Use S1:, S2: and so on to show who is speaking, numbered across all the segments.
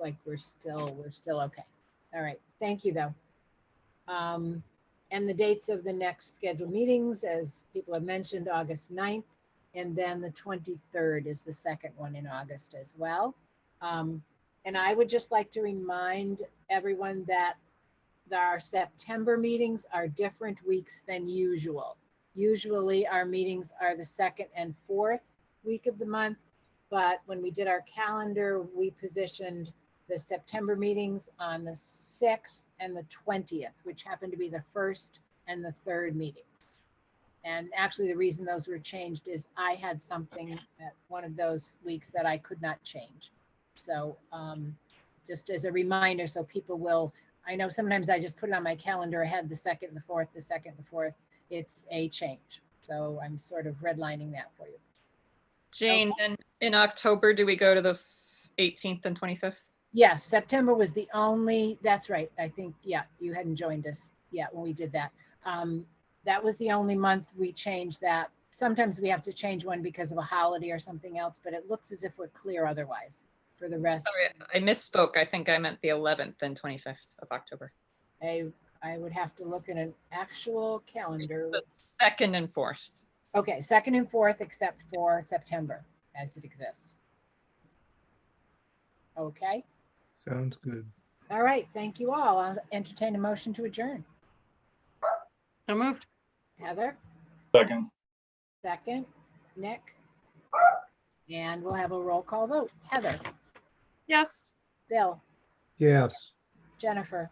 S1: like we're still, we're still okay. All right, thank you, though. Um, and the dates of the next scheduled meetings, as people have mentioned, August 9th, and then the twenty-third is the second one in August as well. Um, and I would just like to remind everyone that our September meetings are different weeks than usual. Usually, our meetings are the second and fourth week of the month, but when we did our calendar, we positioned the September meetings on the 6th and the 20th, which happened to be the first and the third meetings. And actually, the reason those were changed is I had something at one of those weeks that I could not change. So um, just as a reminder, so people will, I know sometimes I just put it on my calendar ahead, the second, the fourth, the second, the fourth. It's a change. So I'm sort of redlining that for you.
S2: Jane, then in October, do we go to the f- 18th and 25th?
S1: Yes, September was the only, that's right. I think, yeah, you hadn't joined us yet when we did that. Um, that was the only month we changed that. Sometimes we have to change one because of a holiday or something else, but it looks as if we're clear otherwise for the rest.
S2: Sorry, I misspoke. I think I meant the 11th and 25th of October.
S1: I, I would have to look at an actual calendar.
S2: The second and fourth.
S1: Okay, second and fourth, except for September as it exists. Okay,
S3: Sounds good.
S1: all right, thank you all. I'll entertain a motion to adjourn.
S4: So moved.
S1: Heather?
S5: Second.
S1: Second, Nick. And we'll have a roll call vote. Heather,
S4: Yes.
S1: Bill,
S3: Yes.
S1: Jennifer,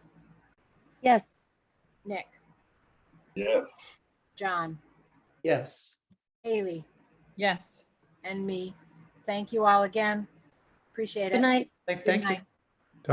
S6: Yes.
S1: Nick,
S5: Yes.
S1: John,
S7: Yes.
S1: Haley,
S2: Yes.
S1: and me. Thank you all again. Appreciate
S6: Good
S1: it.
S6: night.
S7: Thank- Thank you.
S1: night.